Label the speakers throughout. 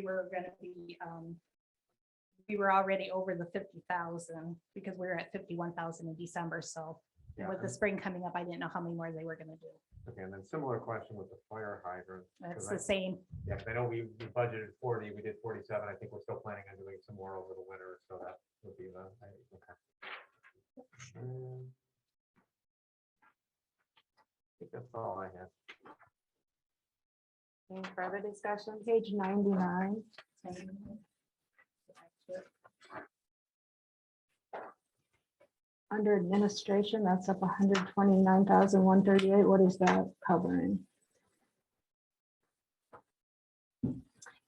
Speaker 1: we were gonna be, um, we were already over the fifty thousand because we were at fifty-one thousand in December, so
Speaker 2: Yeah,
Speaker 1: with the
Speaker 2: and-
Speaker 1: spring coming up, I didn't know how many more they were gonna do.
Speaker 2: Okay, and then similar question with the fire hydrant.
Speaker 1: It's
Speaker 2: 'cause
Speaker 1: the
Speaker 2: I-
Speaker 1: same,
Speaker 2: Yeah, 'cause I know we we budgeted forty, we did forty-seven, I think we're still planning on doing some more over the winter, so that would be the, I- okay. Um, I think that's all I have.
Speaker 3: Any further discussion? Page ninety-nine.
Speaker 1: same.
Speaker 3: Under administration, that's up 129,138. hundred twenty-nine thousand, one thirty-eight. What is that covering?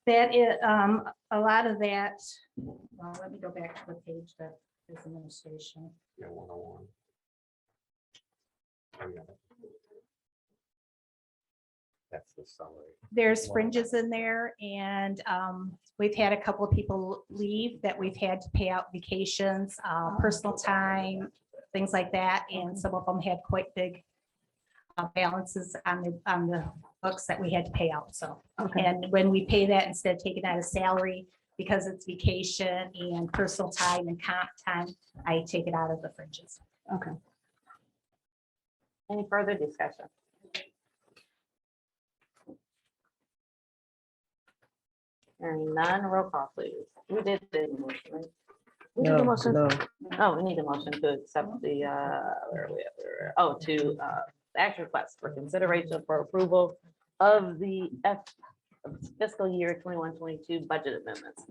Speaker 1: That is, um, a lot of that, well, let me go back to the page that is administration.
Speaker 2: Yeah, one oh one. Oh, yeah. That's the summary.
Speaker 1: There's fringes in there and, um, we've had a couple of people leave that we've had to pay out vacations, uh, personal time, things like that, and some of them had quite big uh, balances on the, on the books that we had to pay out, so.
Speaker 3: Okay,
Speaker 1: And when we pay that, instead of taking out a salary, because it's vacation and personal time and comp time, I take it out of the fringes.
Speaker 3: okay. Any further discussion? Hearing none, roll call please. We did the motion, right? We did
Speaker 4: No,
Speaker 3: the motion.
Speaker 4: no,
Speaker 3: Oh, we need a motion to accept the, uh, where are we at? Where are we at? Oh, to, uh, action request for consideration for approval of the F- fiscal year twenty-one, twenty-two budget amendments.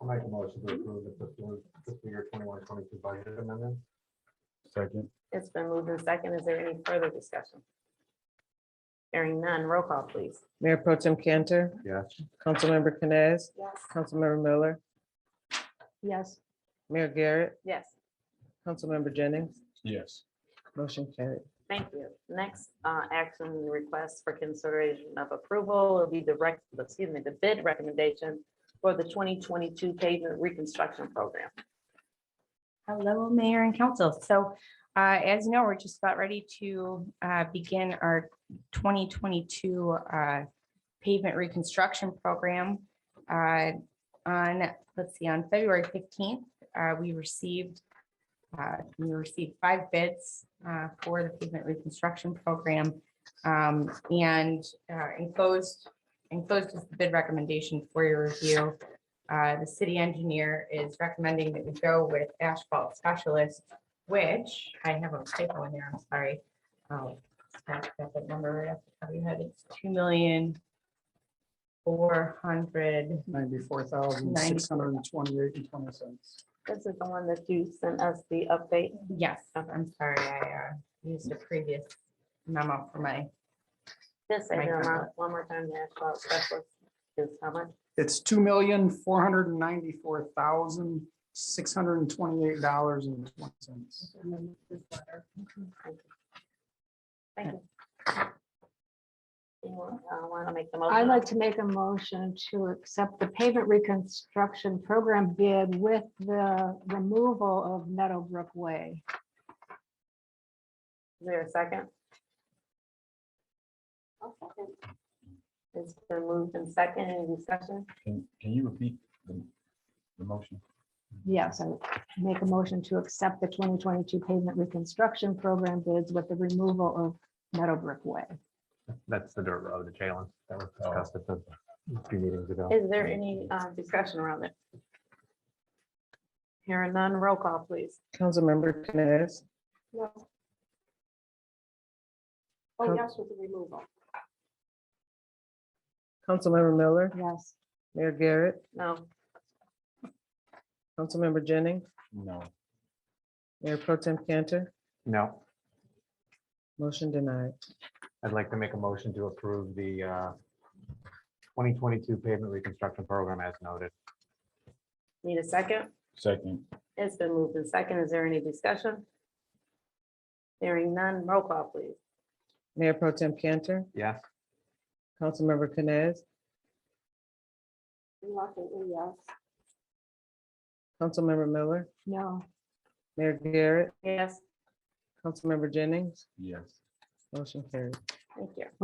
Speaker 2: I'll make a motion to approve the fiscal- fiscal year twenty-one, twenty-two budget amendment.
Speaker 5: Second,
Speaker 3: It's been moved in second. Is there any further discussion? Hearing none, roll call, please.
Speaker 4: Mayor Pro Tem Cantor,
Speaker 2: Yes.
Speaker 4: Councilmember Canes,
Speaker 3: Yes.
Speaker 4: Councilmember Miller,
Speaker 3: Yes.
Speaker 4: Mayor Garrett,
Speaker 3: Yes,
Speaker 4: Councilmember Jennings,
Speaker 5: yes,
Speaker 4: motion carried.
Speaker 3: thank you. Next, uh, action request for consideration of approval will be the rec, excuse me, the bid recommendation for the twenty twenty-two pavement reconstruction program.
Speaker 6: Hello, Mayor and Council. So uh, as you know, we're just about ready to uh, begin our 2022 uh, pavement reconstruction program. Uh, On, let's see, on February 15th, uh, we received, uh, we received five bids uh, for the pavement reconstruction program. Um, And uh, enclosed, enclosed is the bid recommendation for your review. Uh, the city engineer is recommending that we go with asphalt specialist, which I have a typo in there, I'm sorry. Um, I got that number right off the top of your head, it's two million four hundred,
Speaker 7: ninety-four thousand, six hundred and twenty-eight and twenty cents.
Speaker 3: This is the one that you sent us the update.
Speaker 6: yes, I'm sorry, I uh, used a previous memo for my,
Speaker 3: Just say
Speaker 6: Right.
Speaker 3: the amount one more time, the asphalt specialist is how much?
Speaker 7: It's two million, four hundred and ninety-four thousand, six hundred and twenty-eight dollars and twenty cents.
Speaker 3: Thank you. Anyone want to make the
Speaker 8: I'd
Speaker 3: motion?
Speaker 8: like to make a motion to accept the pavement reconstruction program bid with the removal of Meadowbrook Way.
Speaker 3: Is there a second? It's been moved in second, any discussion?
Speaker 5: can, can you repeat the, the motion?
Speaker 8: Yes, I make a motion to accept the 2022 pavement reconstruction program bids with the removal of Meadowbrook Way.
Speaker 2: That's the dirt road, the challenge that was
Speaker 5: Oh.
Speaker 2: discussed at the few meetings ago.
Speaker 3: Is there any uh, discussion around it? Hearing none, roll call, please.
Speaker 4: Councilmember Canes,
Speaker 8: Oh,
Speaker 4: Coun-
Speaker 8: yes, with the removal.
Speaker 4: Councilmember Miller,
Speaker 8: Yes.
Speaker 4: Mayor Garrett,
Speaker 3: No,
Speaker 4: Councilmember Jennings,
Speaker 5: No,
Speaker 4: Mayor Pro Tem Cantor,
Speaker 2: No,
Speaker 4: motion denied.
Speaker 2: I'd like to make a motion to approve the uh, 2022 pavement reconstruction program as noted.
Speaker 3: need a second?
Speaker 5: second,
Speaker 3: It's been moved in second, is there any discussion? Hearing none, roll call, please.
Speaker 4: Mayor Pro Tem Cantor,
Speaker 2: Yes,
Speaker 4: Councilmember Canes,
Speaker 8: Reluctantly, yes.
Speaker 4: Councilmember Miller,
Speaker 8: No.
Speaker 4: Mayor Garrett,
Speaker 3: Yes,
Speaker 4: Councilmember Jennings,
Speaker 5: yes,
Speaker 4: motion carried.
Speaker 3: Thank you.